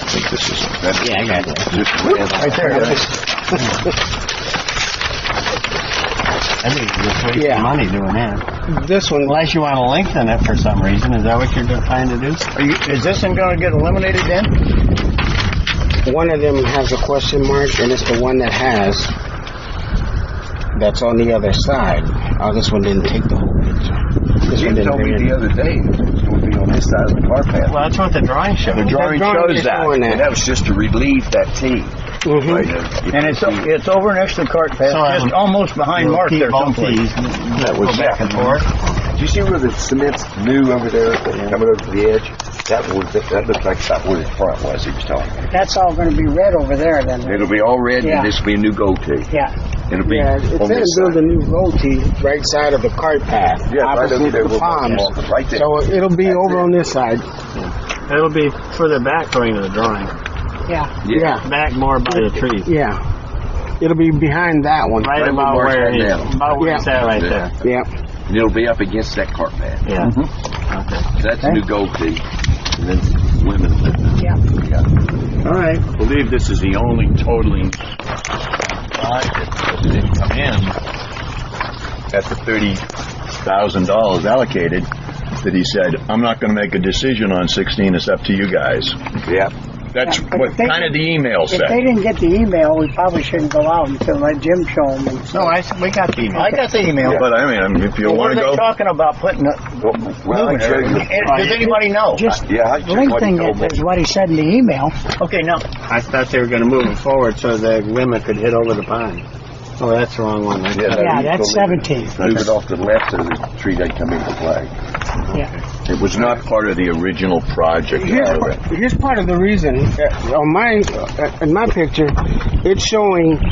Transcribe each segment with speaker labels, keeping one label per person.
Speaker 1: think this is. that-
Speaker 2: Yeah, I got it.
Speaker 3: Right there, that's-
Speaker 2: I think you're wasting
Speaker 3: Yeah.
Speaker 2: money doing that.
Speaker 3: this one,
Speaker 2: Unless you want to lengthen it for some reason, is that what you're trying to do?
Speaker 4: Are you, is this one gonna get eliminated then?
Speaker 3: one of them has a question mark, and it's the one that has, that's on the other side. Oh, this one didn't take the whole picture. This
Speaker 1: You
Speaker 3: one didn't
Speaker 1: told me
Speaker 3: bring
Speaker 1: the
Speaker 3: it.
Speaker 1: other day, it would be on this side of the car path.
Speaker 2: Well, that's what the drawing showed.
Speaker 1: The drawing
Speaker 3: drawing
Speaker 1: shows
Speaker 3: is
Speaker 1: that,
Speaker 3: showing that.
Speaker 1: and that was just to relieve that T.
Speaker 3: Mhm.
Speaker 1: Right, uh, you
Speaker 4: And
Speaker 1: can
Speaker 4: it's,
Speaker 1: see-
Speaker 4: it's over next to the cart path,
Speaker 2: So, um,
Speaker 4: just almost behind
Speaker 2: Little
Speaker 4: Mark
Speaker 2: T-
Speaker 4: there
Speaker 2: both
Speaker 4: someplace.
Speaker 2: Ts,
Speaker 1: That was
Speaker 2: go back and
Speaker 1: that.
Speaker 2: forth.
Speaker 1: Do you see where the cement's new over there, coming over to the edge? That was, that looked like about where the front was, he was telling me.
Speaker 5: That's all gonna be red over there then.
Speaker 1: It'll be all red,
Speaker 5: Yeah.
Speaker 1: and this will be a new gold tee.
Speaker 5: Yeah,
Speaker 1: It'll be
Speaker 3: Yeah, it's
Speaker 1: on
Speaker 3: in
Speaker 1: this
Speaker 3: build a
Speaker 1: side.
Speaker 3: new road to right side of the cart path,
Speaker 1: Yeah, right over
Speaker 3: opposite
Speaker 1: there,
Speaker 3: the
Speaker 1: we'll-
Speaker 3: palms.
Speaker 1: right there.
Speaker 3: So it'll be over on this side.
Speaker 2: It'll be further back according to the drawing.
Speaker 5: yeah.
Speaker 3: Yeah,
Speaker 2: Back more by the trees.
Speaker 3: yeah. It'll be behind that one.
Speaker 2: Right
Speaker 1: Right
Speaker 2: about
Speaker 1: where
Speaker 2: where
Speaker 1: Mark's
Speaker 2: he's,
Speaker 1: at now.
Speaker 2: about where
Speaker 3: Yeah.
Speaker 2: he's at right there.
Speaker 3: Yeah.
Speaker 1: And it'll be up against that cart path.
Speaker 2: Yeah. Okay.
Speaker 1: So that's a new gold tee, and then women.
Speaker 5: Yeah.
Speaker 1: Yeah.
Speaker 4: All right.
Speaker 6: I believe this is the only totaling side that didn't come in at the thirty thousand dollars allocated, that he said, I'm not gonna make a decision on sixteen, it's up to you guys.
Speaker 1: Yeah.
Speaker 6: That's
Speaker 5: Yeah, but
Speaker 6: what
Speaker 5: if they-
Speaker 6: kind of the email
Speaker 5: If they
Speaker 6: said.
Speaker 5: didn't get the email, we probably shououldn't go out until let Jim show them.
Speaker 2: No, I, s- we got the email.
Speaker 4: I got the email.
Speaker 6: But I mean, I mean, if you
Speaker 4: Well,
Speaker 6: wanna
Speaker 4: What are
Speaker 6: go,
Speaker 4: they talking about putting, it-
Speaker 1: Well, well, I
Speaker 4: moving
Speaker 1: tell you,
Speaker 4: it? And Does anybody know?
Speaker 5: Just
Speaker 1: yeah, I checked what he
Speaker 5: lengthening
Speaker 1: told me.
Speaker 5: it is what he said in the email.
Speaker 4: Okay, now,
Speaker 2: I thought they were going to move it forward so the women could hit over the pond. Oh, that's the wrong one.
Speaker 1: Yeah,
Speaker 5: Yeah,
Speaker 1: you
Speaker 5: that's
Speaker 1: told me.
Speaker 5: seventeen,
Speaker 1: Move it off to the left so the tree doesn't come into play.
Speaker 5: yeah.
Speaker 6: it was not part of the original project.
Speaker 3: Here's, part- here's part of the reason. Uh, On my, uh, in my picture, it's showing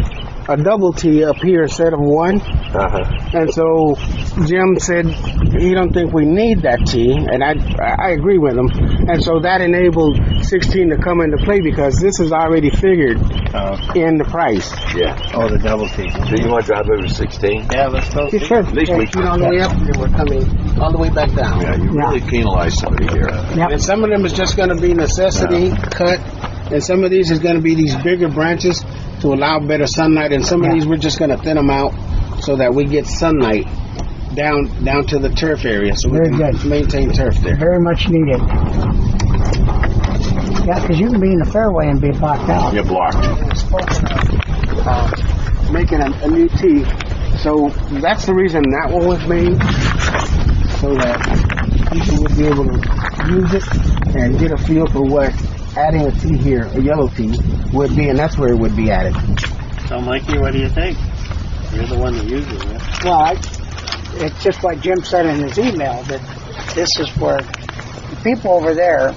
Speaker 3: a double T up here instead of one.
Speaker 1: Uh-huh.
Speaker 3: And so Jim said he don't think we need that T, and I I agree with him. And so that enabled 16 to come into play because this is already figured in the price.
Speaker 1: Yeah.
Speaker 2: Oh, the double T.
Speaker 1: Do you want to drive over to 16?
Speaker 2: Yeah, let's go.
Speaker 3: Sure. At
Speaker 1: least we-
Speaker 3: all the way up, and we're coming all the way back down.
Speaker 1: Yeah, you really penalize somebody here.
Speaker 3: And some of them is just going to be necessity cut, and some of these is going to be these bigger branches to allow better sunlight, and some of these we're just going to thin them out so that we get sunlight down down to the turf area, so we
Speaker 5: Very
Speaker 3: can
Speaker 5: good.
Speaker 3: maintain turf there.
Speaker 5: Very much needed. Yeah, 'cause you can be in the fairway and be blocked out.
Speaker 6: You're blocked.
Speaker 3: uh, making a, a new tee. So that's the reason that one was made, so that people would be able to use it and get a feel for what adding a tee here, a yellow tee, would be, and that's where it would be added.
Speaker 2: So, Mikey, what do you think? You're the one that uses it.
Speaker 5: Well, I, it's just like Jim said in his email, that this is where the people over there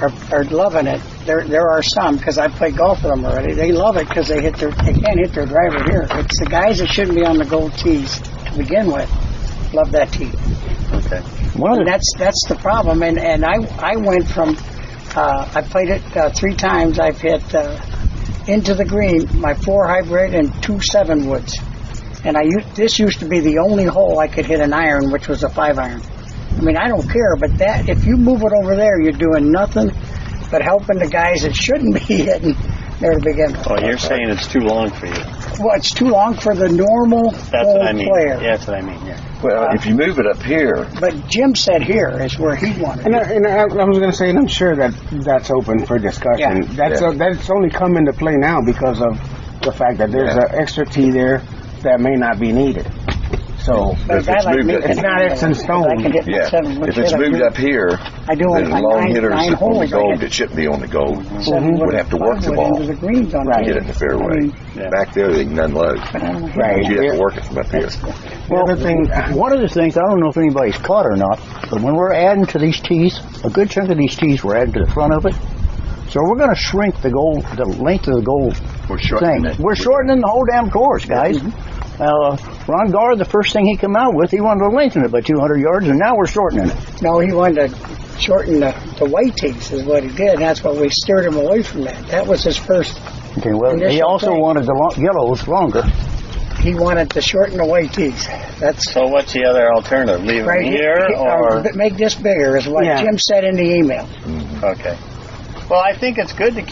Speaker 5: are, are loving it. There, there are some, because I play golf with them already, they love it because they hit their, they can't hit their driver here. It's the guys that shouldn't be on the gold tees to begin with, love that tee.
Speaker 1: Okay.
Speaker 5: Well, that's, that's the problem, and, and I, I went from, uh, I played it, uh, three times, I've hit, uh, into the green, my four hybrid and two seven woods. And I used, this used to be the only hole I could hit an iron, which was a five iron. I mean, I don't care, but that, if you move it over there, you're doing nothing but helping the guys that shouldn't be hitting there to begin with.
Speaker 2: Well, you're saying it's too long for you.
Speaker 5: Well, it's too long for the normal
Speaker 2: That's
Speaker 5: hole
Speaker 2: what I mean.
Speaker 5: player.
Speaker 2: Yeah, that's what I mean, yeah.
Speaker 5: Uh,
Speaker 1: Well, if you move it up here,
Speaker 5: But Jim said here is where he wanted
Speaker 3: And, I,
Speaker 5: it.
Speaker 3: and I, I was going to say, and I'm sure that that's open for discussion.
Speaker 5: Yeah.
Speaker 3: That's
Speaker 1: Yeah.
Speaker 3: uh that's only come into play now because of the fact that there's
Speaker 1: Yeah.
Speaker 3: an extra tee there that may not be needed. So
Speaker 5: But a guy
Speaker 1: it's
Speaker 5: like
Speaker 1: moved
Speaker 5: me
Speaker 1: it-
Speaker 5: can
Speaker 1: It's
Speaker 3: not
Speaker 5: handle
Speaker 3: X and
Speaker 5: it, 'cause I can hit my
Speaker 1: yeah.
Speaker 5: seven
Speaker 1: If
Speaker 5: woods
Speaker 1: it's
Speaker 5: hit, I
Speaker 1: moved
Speaker 5: do-
Speaker 1: up here,
Speaker 5: I do
Speaker 1: then
Speaker 5: it like
Speaker 1: long
Speaker 5: nine,
Speaker 1: hitters
Speaker 5: nine
Speaker 1: on the
Speaker 5: holes. I
Speaker 1: gold
Speaker 5: hit
Speaker 1: that should be on the gold
Speaker 5: seven
Speaker 1: would
Speaker 5: woods
Speaker 1: have to
Speaker 5: and
Speaker 1: work the
Speaker 5: five wood
Speaker 1: ball
Speaker 5: Into the greens on
Speaker 1: to
Speaker 5: that.
Speaker 1: get it in the fairway.
Speaker 2: Yeah.
Speaker 1: Back there, they can unload.
Speaker 5: But I don't know.
Speaker 3: Right.
Speaker 1: You have to work it from up here.
Speaker 3: the other thing,
Speaker 2: uh,
Speaker 4: one of the things, I don't know if anybody's caught or not, but when we're adding to these tees, a good chunk of these tees we're adding to the front of it. So we're gonna shrink the goal, the length of the goal
Speaker 6: We're
Speaker 4: thing.
Speaker 6: shortening it.
Speaker 4: We're shortening the whole damn course, guys.
Speaker 2: Mm-hmm.
Speaker 4: Uh, Ron Gar, the first thing he come out with, he wanted to lengthen it by 200 yards, and now we're shortening it.
Speaker 5: No, he wanted to shorten the, the white tees is what he did. and That's why we steered him away from that. That was his first.
Speaker 4: Okay, well, he
Speaker 5: Initial
Speaker 4: also
Speaker 5: thing.
Speaker 4: wanted the lo- yellows longer.
Speaker 5: He wanted to shorten the white tees. That's
Speaker 2: So what's the other alternative? Leave
Speaker 5: right uh,
Speaker 2: it here or?
Speaker 5: Make this bigger is what
Speaker 3: Yeah.
Speaker 5: Jim said in the email.
Speaker 2: Okay. Well, I think it's good to